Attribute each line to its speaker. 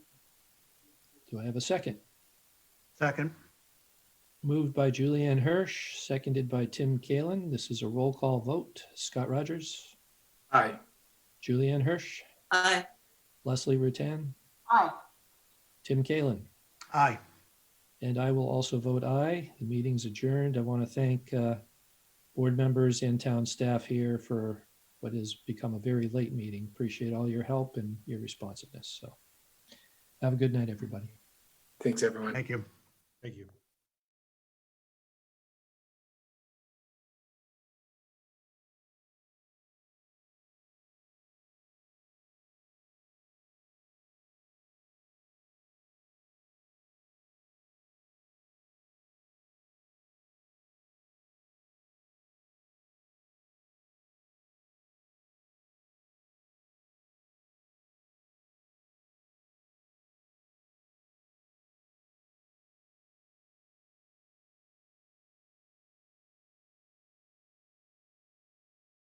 Speaker 1: Do I have a second?
Speaker 2: Second.
Speaker 1: Moved by Julianne Hirsch, seconded by Tim Kalin. This is a roll call vote. Scott Rogers,
Speaker 2: Aye.
Speaker 1: Julianne Hirsch,
Speaker 3: Aye.
Speaker 1: Leslie Rutan,
Speaker 3: Aye.
Speaker 1: Tim Kalin.
Speaker 2: Aye.
Speaker 1: And I will also vote aye. The meeting's adjourned. I want to thank uh, board members and town staff here for what has become a very late meeting. Appreciate all your help and your responsiveness. So have a good night, everybody.
Speaker 4: Thanks, everyone.
Speaker 2: Thank you.
Speaker 5: Thank you.